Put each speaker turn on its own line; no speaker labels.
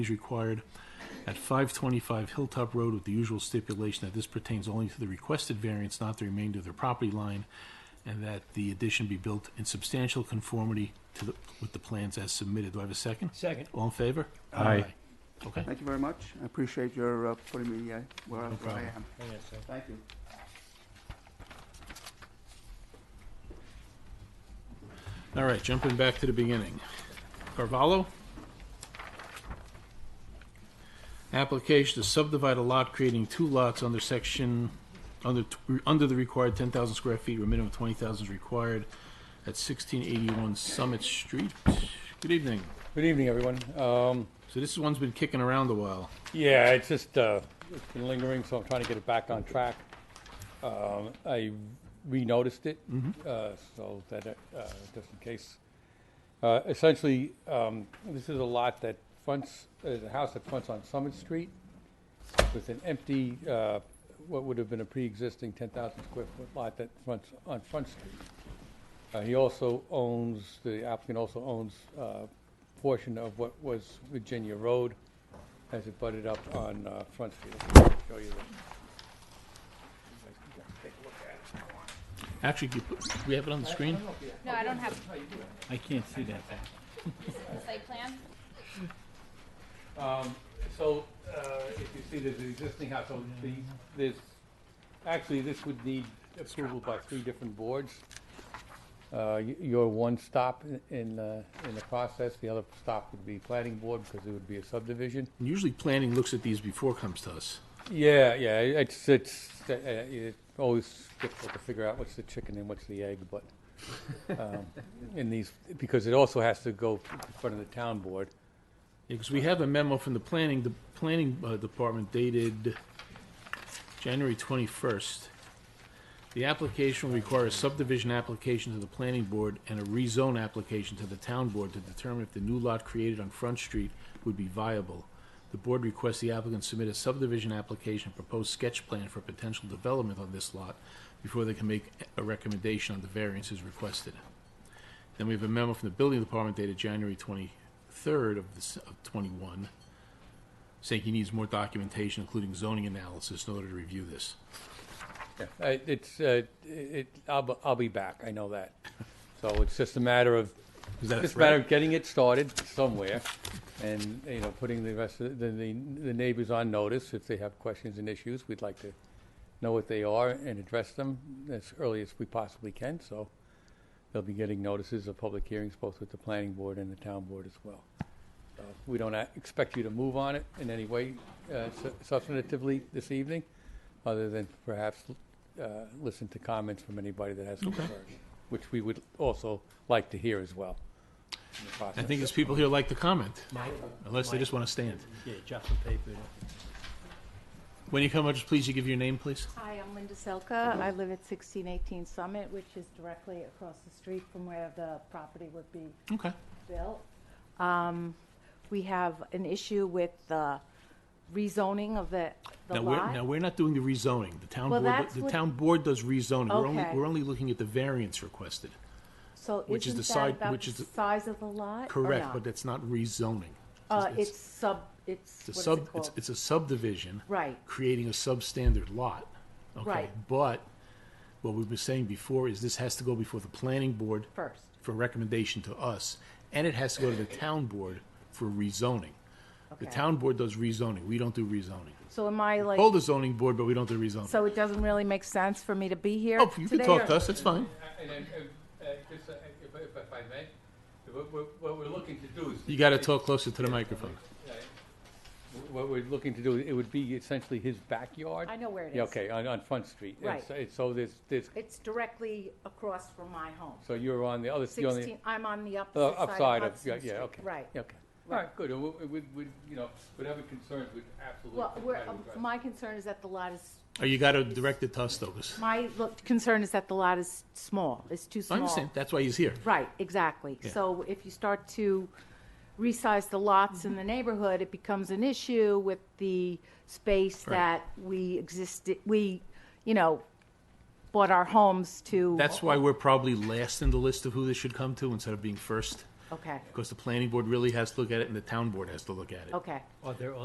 is required at 525 Hilltop Road with the usual stipulation that this pertains only to the requested variance, not the remainder of the property line, and that the addition be built in substantial conformity to the, with the plans as submitted. Do I have a second?
Second.
All in favor?
Aye.
Okay.
Thank you very much. I appreciate your uh, putting me uh, where I
No
where I
problem.
am.
Hang on a second.
Thank you.
All right, jumping back to the beginning. Carvalho. Application to subdivide a lot creating two lots under section, under, under the required ten thousand square feet, where minimum twenty thousand is required at sixteen eighty-one Summit Street. Good evening.
Good evening, everyone. Um,
So this one's been kicking around a while.
Yeah, it's just, uh, it's been lingering, so I'm trying to get it back on track. Um, I renoticed it, uh, so that, it, uh, just in case. Uh, Essentially, um, this is a lot that fronts, is a house that fronts on Summit Street with an empty, uh, what would have been a pre-existing 10,000 square foot lot that fronts on Front Street. Uh, He also owns, the applicant also owns a portion of what was Virginia Road as it butted up on uh, Front Street. I'll show you that.
Actually, you put- we have it on the screen?
No, I don't have
I can't see that.
a site plan.
Um, So uh, if you see there's an existing house, so the, this, actually, this would need approval by three different boards. Uh, y- Your one stop in- in, uh, in the process, the other stop would be planning board because it would be a subdivision.
Usually planning looks at these before it comes to us.
Yeah, yeah, it's, it's, uh, it's always difficult to figure out what's the chicken and what's the egg, but, um, in these, because it also has to go in front of the town board.
Because we have a memo from the planning, the planning uh, department dated January 21st. The application will require a subdivision application to the planning board and a rezone application to the town board to determine if the new lot created on Front Street would be viable. The board requests the applicant submit a subdivision application, proposed sketch plan for potential development on this lot before they can make a recommendation on the variances requested. Then we have a memo from the building department dated January twenty-third of this, of twenty-one, saying he needs more documentation, including zoning analysis, in order to review this.
Yeah, I- It's, uh, it, I'll, be- I'll be back, I know that. So it's just a matter of,
Is that a
just a matter
threat?
of getting it started somewhere and, you know, putting the rest of, the, the the neighbors on notice. If they have questions and issues, we'd like to know what they are and address them as early as we possibly can, so they'll be getting notices of public hearings, both with the planning board and the town board as well. Uh, We don't a- expect you to move on it in any way uh, su- substantively this evening, other than perhaps uh, listen to comments from anybody that has concerns, which we would also like to hear as well. in the
I
process.
think there's people here like to comment,
Mike?
unless they just want to stand.
Yeah, drop the paper.
When you come up, just please, you give your name, please.
Hi, I'm Linda Selka. I live at 1618 Summit, which is directly across the street from where the property would be
Okay.
built. Um, We have an issue with the rezoning of the the
Now, we're,
lot.
now, we're not doing the rezoning. The town
Well,
board,
that's
the
what-
town board does rezoning. We're only,
Okay.
we're only looking at the variance requested.
So
which is
isn't
the
that
side-
about
which is
the
the-
size of the lot? or
Correct,
not?
but that's not rezoning.
Uh,
it's-
It's sub,
It's
it's,
a
what's
sub,
it
it's,
called?
it's a subdivision.
Right.
Creating a substandard lot. Okay,
Right.
But what we've been saying before is this has to go before the planning board
First.
for recommendation to us, and it has to go to the town board for rezoning. The
Okay.
town board does rezoning, we don't do rezoning.
So am I like,
Hold the zoning board, but we don't do rezoning.
so it doesn't really make sense for me to be here
Oh, you can
today,
talk
or-
to us, that's fine.
And then, uh, uh, just, uh, if if- if I may, what- what what we're looking to do is.
You gotta talk closer to the microphone.
Uh, What we're looking to do, it would be essentially his backyard.
I know where it
Yeah,
is.
Okay, on, on Front Street. And
Right.
so- and So there's, there's,
It's directly across from my home.
so you're on the other, you're on the
16, I'm on the
uh,
opposite
upside
side
of,
of
yeah,
Hudson
yeah,
Street.
okay.
Right.
Okay. All right, good. And we- we- we- you know, whatever concerns, we'd absolutely
Well, we're,
try to
um,
address.
my concern is that the lot is,
Or you gotta direct it to us, though, 'cause-
my look- concern is that the lot is small, it's too small.
I understand, that's why he's here.
Right, exactly.
Yeah.
So if you start to resize the lots in the neighborhood, it becomes an issue with the space
Right.
that we existed, we, you know, bought our homes to.
That's why we're probably last in the list of who this should come to instead of being first.
Okay,
because the planning board really has to look at it and the town board has to look at it.
okay.
Are there